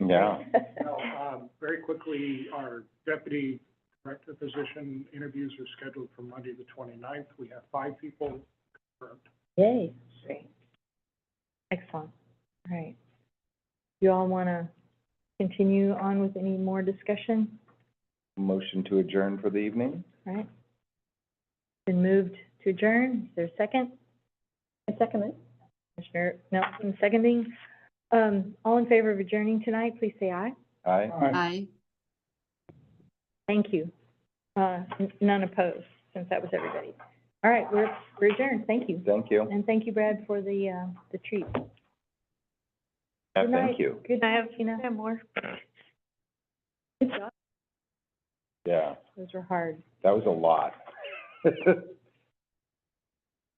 Yeah. No, um, very quickly, our deputy director position interviews are scheduled for Monday, the 29th. We have five people confirmed. Yay. Great. Excellent. All right. You all want to continue on with any more discussion? Motion to adjourn for the evening? All right. Been moved to adjourn. Is there a second? I second it. Commissioner Nelson seconding. Um, all in favor of adjourning tonight, please say aye. Aye. Aye. Thank you. Uh, n- none opposed, since that was everybody. All right, we're, we're adjourned. Thank you. Thank you. And thank you, Brad, for the, uh, the treat. Yeah, Good Thank night. you. Good night, Tina. more. Good job. Yeah, Those were hard. that was a lot.